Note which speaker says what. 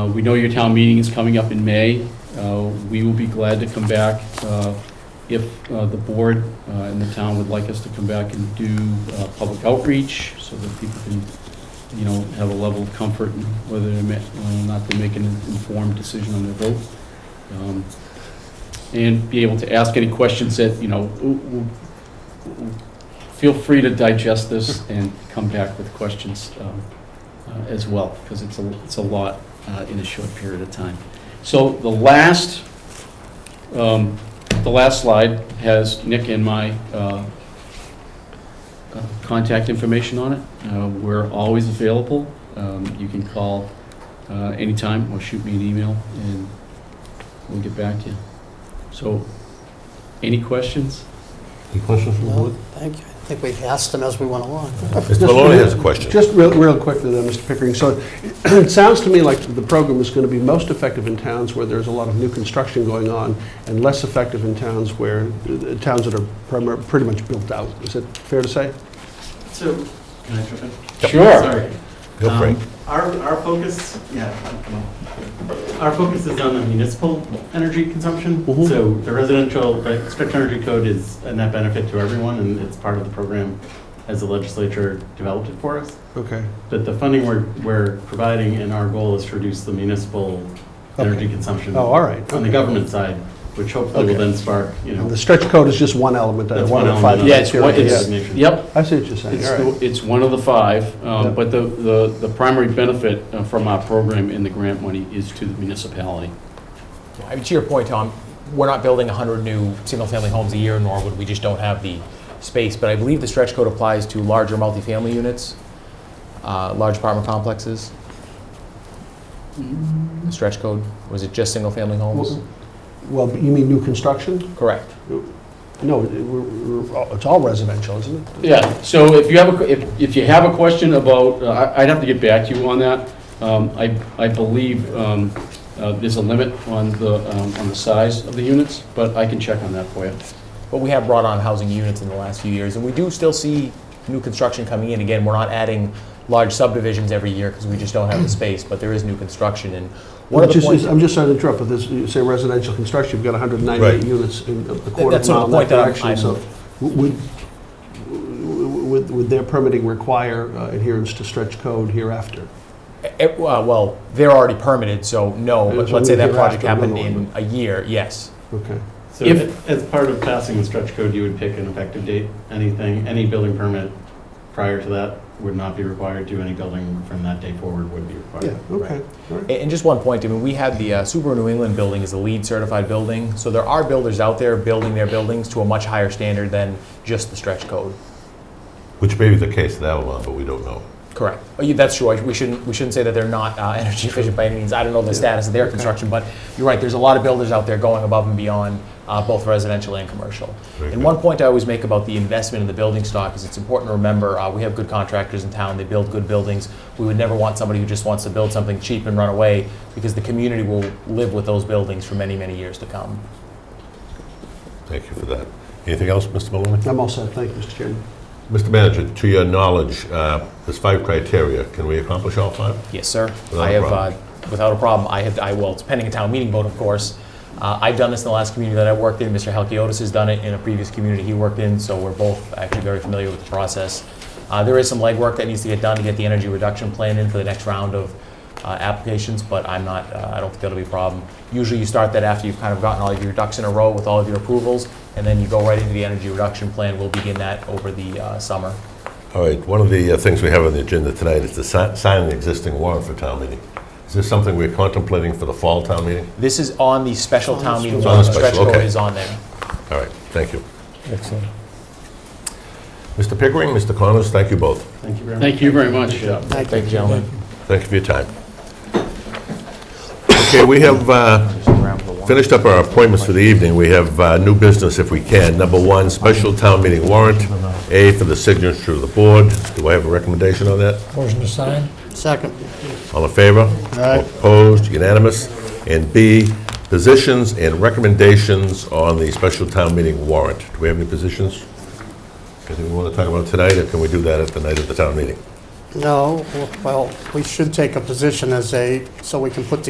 Speaker 1: Uh, We know your town meeting is coming up in May. Uh, We will be glad to come back uh, if uh, the board uh, and the town would like us to come back and do uh, public outreach so that people can, you know, have a level of comfort in whether they're ma- uh, not to make an informed decision on their vote. Um, And be able to ask any questions that, you know, w- w- w- feel free to digest this and come back with questions um, uh, as well, because it's a, it's a lot uh, in a short period of time. So the last, um, the last slide has Nick and my uh, uh, contact information on it. Uh, We're always available. Um, You can call uh, anytime or shoot me an email, and we'll get back to you. So, any questions?
Speaker 2: Any questions from the
Speaker 3: No,
Speaker 2: board?
Speaker 3: thank you. I think we asked them as we went along.
Speaker 2: Mr. Maloney has a question.
Speaker 4: Just real, real quickly then, Mr. Pickering, so it sounds to me like the program is going to be most effective in towns where there's a lot of new construction going on, and less effective in towns where, uh, towns that are primar- pretty much built out. Is it fair to say?
Speaker 5: So, can I jump in?
Speaker 1: Sure.
Speaker 5: Sorry.
Speaker 2: Feel free.
Speaker 5: Um, Our, our focus, yeah, come on. Our focus is on the municipal energy consumption.
Speaker 4: Mhm.
Speaker 5: So the residential, the strict energy code is a net benefit to everyone, and it's part of the program as the legislature developed it for us.
Speaker 4: Okay.
Speaker 5: But the funding we're, we're providing and our goal is to reduce the municipal energy
Speaker 4: Okay.
Speaker 5: consumption.
Speaker 4: Oh, all right.
Speaker 5: On the government side, which hopefully will
Speaker 4: Okay.
Speaker 5: then spark, you know.
Speaker 4: And the stretch code is just one element, that I
Speaker 5: That's
Speaker 4: want
Speaker 5: one
Speaker 4: to find out.
Speaker 5: element.
Speaker 1: Yeah, it's, one-
Speaker 5: Yeah.
Speaker 1: it's, yep,
Speaker 4: I see what you're saying,
Speaker 1: It's,
Speaker 4: all right.
Speaker 1: the- it's one of the five,
Speaker 4: Yeah.
Speaker 1: um, but the, the, the primary benefit uh, from our program in the grant money is to the municipality.
Speaker 6: I mean, to your point, Tom, we're not building 100 new single-family homes a year in Norwood, we just don't have the space. But I believe the stretch code applies to larger multifamily units, uh, large apartment complexes, the stretch code. Was it just single-family homes?
Speaker 4: Well, you mean new construction?
Speaker 6: Correct.
Speaker 4: No, it- we're- we're- it's all residential, isn't it?
Speaker 1: Yeah, so if you have, a que- if, if you have a question about, uh, I- I'd have to get back to you on that. Um, I, I believe um, uh, there's a limit on the, um, on the size of the units, but I can check on that for you.
Speaker 6: But we have brought on housing units in the last few years, and we do still see new construction coming in. Again, we're not adding large subdivisions every year because we just don't have the space, but there is new construction. And one of
Speaker 4: Which
Speaker 6: the
Speaker 4: is-
Speaker 6: points...
Speaker 4: is- I'm just sorry to interrupt, but this, you say residential construction, you've got 198
Speaker 2: Right.
Speaker 4: units in a quarter
Speaker 6: that's
Speaker 4: of
Speaker 6: sort
Speaker 4: a mile in
Speaker 6: of the
Speaker 4: that
Speaker 6: point that I'm-
Speaker 4: direction, so would, would, would their permitting require uh, adherence to stretch code hereafter?
Speaker 6: Eh, uh, Well, they're already permitted, so no,
Speaker 4: Yeah,
Speaker 6: but
Speaker 4: so
Speaker 6: let's say
Speaker 4: we
Speaker 6: that
Speaker 4: could
Speaker 6: project
Speaker 4: ask them
Speaker 6: happened
Speaker 4: another
Speaker 6: in a year, yes.
Speaker 4: Okay.
Speaker 5: So
Speaker 1: If-
Speaker 5: as part of passing the stretch code, you would pick an effective date, anything, any building permit prior to that would not be required to, any building from that day forward would be
Speaker 4: Yeah,
Speaker 5: required.
Speaker 4: okay, all right.
Speaker 6: A- And just one point, I mean, we had the uh, Subaru New England building is a LEED certified building, so there are builders out there building their buildings to a much higher standard than just the stretch code.
Speaker 2: Which may be the case in Avalon, but we don't know.
Speaker 6: Correct. Oh, yeah, That's true. I- We shouldn't, we shouldn't say that they're not uh, energy efficient by any means. I don't know the status of their construction, but you're right, there's a lot of builders out there going above and beyond, uh, both residential and commercial.
Speaker 2: Very
Speaker 6: And
Speaker 2: good.
Speaker 6: one point I always make about the investment in the building stock is it's important to remember, uh, we have good contractors in town, they build good buildings. We would never want somebody who just wants to build something cheap and run away, because the community will live with those buildings for many, many years to come.
Speaker 2: Thank you for that. Anything else, Mr. Maloney?
Speaker 4: I'm all set, thank you, Mr. Chairman.
Speaker 2: Mr. Manager, to your knowledge, uh, there's five criteria. Can we accomplish all five?
Speaker 6: Yes, sir.
Speaker 2: Without
Speaker 6: I
Speaker 2: a
Speaker 6: have,
Speaker 2: problem.
Speaker 6: uh, without a problem, I have, I, well, it's pending a town meeting vote, of course. Uh, I've done this in the last community that I worked in. Mr. Halkiotis has done it in a previous community he worked in, so we're both actually very familiar with the process. Uh, There is some legwork that needs to get done to get the energy reduction plan in for the next round of uh, applications, but I'm not, uh, I don't think that'll be a problem. Usually you start that after you've kind of gotten all of your ducks in a row with all of your approvals, and then you go right into the energy reduction plan. We'll begin that over the uh, summer.
Speaker 2: All right, one of the uh, things we have on the agenda tonight is to si- sign an existing warrant for town meeting. Is this something we're contemplating for the fall town meeting?
Speaker 6: This is on the special town meeting.
Speaker 2: It's on the
Speaker 6: warrant.
Speaker 2: special,
Speaker 6: Stretch code
Speaker 2: okay.
Speaker 6: is on there.
Speaker 2: All right, thank you. Excellent. Mr. Pickering, Mr. Connors, thank you both.
Speaker 5: Thank you very much.
Speaker 1: Thank you very much.
Speaker 6: Thank you, gentlemen.
Speaker 2: Thank you for your time. Okay, we have uh, finished up our appointments for the evening. We have uh, new business if we can. Number one, special town meeting warrant, A for the signature of the board. Do I have a recommendation on that?
Speaker 7: Motion to sign?
Speaker 3: Second,
Speaker 2: All in favor? Opposed, unanimous. And B, positions and recommendations on the special town meeting warrant. Do we have any positions? Anything we want to talk about tonight, or can we do that at the night of the town meeting?
Speaker 3: no, well, we should take a position as a, so we can put together